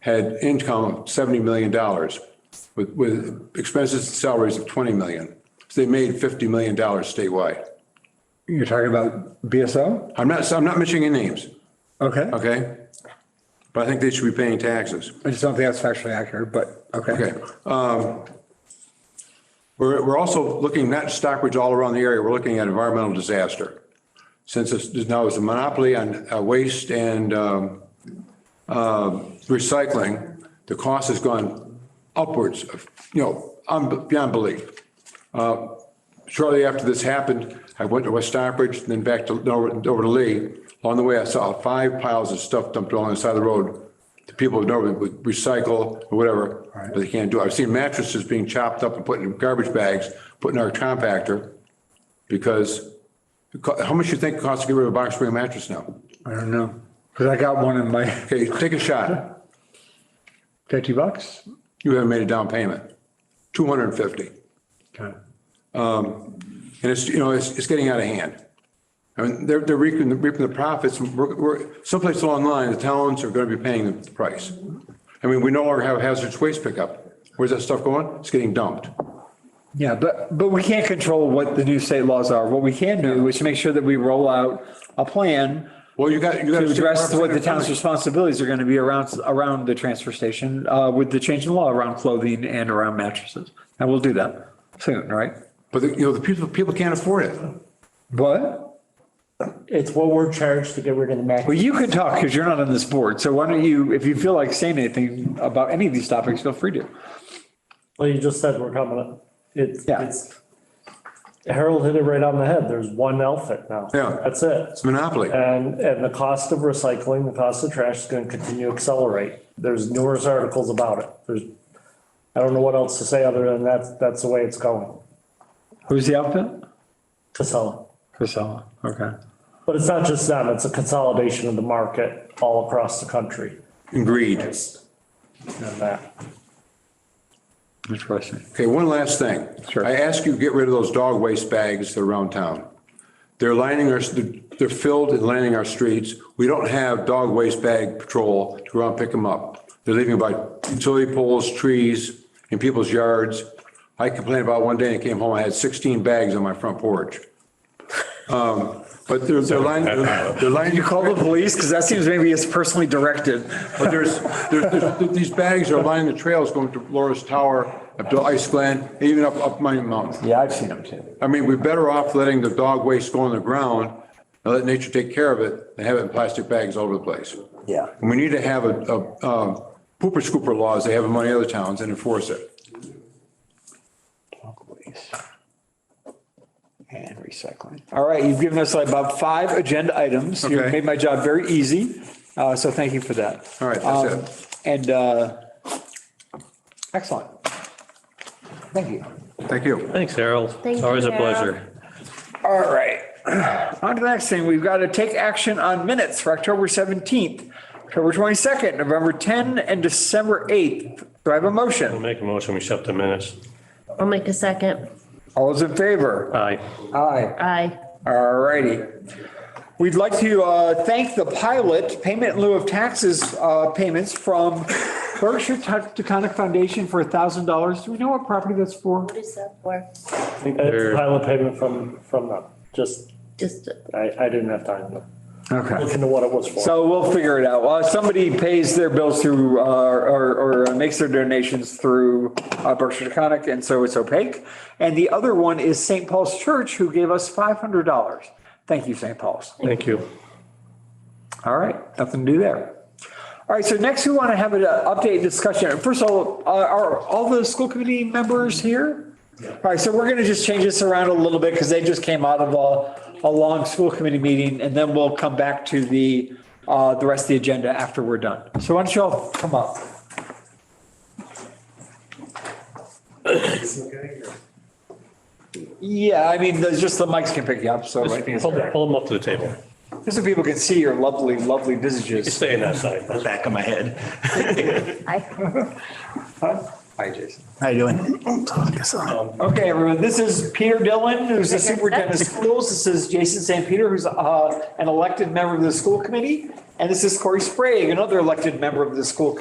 had income $70 million with, with expenses and salaries of 20 million. So they made $50 million statewide. You're talking about BSO? I'm not, I'm not mentioning any names, Okay. okay? But I think they should be paying taxes. I just don't think that's factually accurate, but okay. Okay. um, We're, we're also looking, not Stockbridge all around the area, we're looking at environmental disaster. Since it's, now it's a monopoly on uh, waste and um, um, recycling, the cost has gone upwards of, you know, un- beyond belief. Uh, Shortly after this happened, I went to West Stockbridge, then back to, over over to Lee. Along the way, I saw five piles of stuff dumped along the side of the road. The people normally would recycle or whatever, but they can't do it. I've seen mattresses being chopped up and put in garbage bags, put in our compactor because it co- how much you think it costs to get rid of a box spring mattress now? I don't know. Cause I got one in my Okay, take a shot. fifty bucks. You haven't made a down payment, 250. Okay. And it's, you know, it's, it's getting out of hand. I mean, they're, they're reaping, reaping the profits. We're, we're, someplace along the line, the towns are going to be paying the price. I mean, we no longer have hazardous waste pickup. Where's that stuff going? It's getting dumped. Yeah, but, but we can't control what the new state laws are. What we can do is to make sure that we roll out a plan Well, you got, you got. to address what the town's Representative responsibilities are going to be around, around the transfer station, uh, with the change in law around clothing and around mattresses. And we'll do that soon, right? Conley. But, the- you know, the people, people can't afford it. What? It's what we're charged to get rid of the Well, mattress. you can talk because you're not on this board. So why don't you, if you feel like saying anything about any of these topics, feel free to. Well, you just said we're coming up. It's, Yeah. it's, Harold hit it right on the head. There's one outfit now. Yeah. That's it. It's monopoly. And, and the cost of recycling, the cost of trash is going to continue to accelerate. There's numerous articles about it. There's, I don't know what else to say other than that, that's the way it's going Who's the outfit? to sell. Casella. Okay. But it's not just them, it's a consolidation of the market all across the country. and Greed. It's- And that. Interesting. Okay, one last thing. Sure. I ask you to get rid of those dog waste bags that are around town. They're lining our, they're filled and lining our streets. We don't have dog waste bag patrol to go out and pick them up. They're leaving by utility poles, trees, in people's yards. I complained about one day and I came home, I had 16 bags on my front porch. Um, But they're, they're lining, they're lining. You call the police because that seems maybe it's personally directed. But there's, there's, there's- these bags are lining the trails going to Laura's Tower, up to Ice Glen, even up, up Mining Mountain. Yeah, I've seen them too. I mean, we're better off letting the dog waste go on the ground and let nature take care of it than have it in plastic bags all over the place. Yeah. And we need to have a, a, um, pooper scooper laws they have in many other towns and enforce it. And recycling. All right, you've given us like about five agenda items. You Okay. made my job very easy. Uh, so thank you for that. All right, that's Um, it. And, uh, excellent. Thank you. Thank you. Thanks, Harold. Thank It's always you, a Harold. pleasure. All right. On to the next thing. We've got to take action on minutes for October 17th, October 22nd, November 10, and December 8th. Do I have a I'll motion? make a motion, we shut the minutes. I'll make a second. All those in favor? Aye. Aye. Aye. All righty. We'd like to uh, thank the pilot payment in lieu of taxes uh, payments from Berkshire Taconic Foundation for $1,000. Do we know what property that's for? What is that for? I think that's a pile of payment from, from them. Just, Just, I, I didn't have time to Okay. look into what it was for. So we'll figure it out. Well, Somebody pays their bills through, uh, or or makes their donations through uh, Berkshire Taconic, and so it's opaque. And the other one is St. Paul's Church, who gave us $500. Thank you, St. Paul's. Thank you. All right, nothing to do there. All right, so next we want to have an uh, update discussion. First of all, uh, are all the school committee members here? All right, so we're going to just change this around a little bit because they just came out of a, a long school committee meeting and then we'll come back to the, uh, the rest of the agenda after we're done. So why don't you all come up? Yeah, I mean, there's just the mics can pick you up, so. right? Pull pull them up to the table. Just so people can see your lovely, lovely You visages. Stay in that side. back of my head. aye. Hi, Jason. Um, How you doing? I guess, uh, Okay, everyone, this is Peter Dillon, who's the superintendent of schools. This is Jason St. Peter, who's uh, an elected member of the school committee. And this is Corey Sprague, another elected member of the school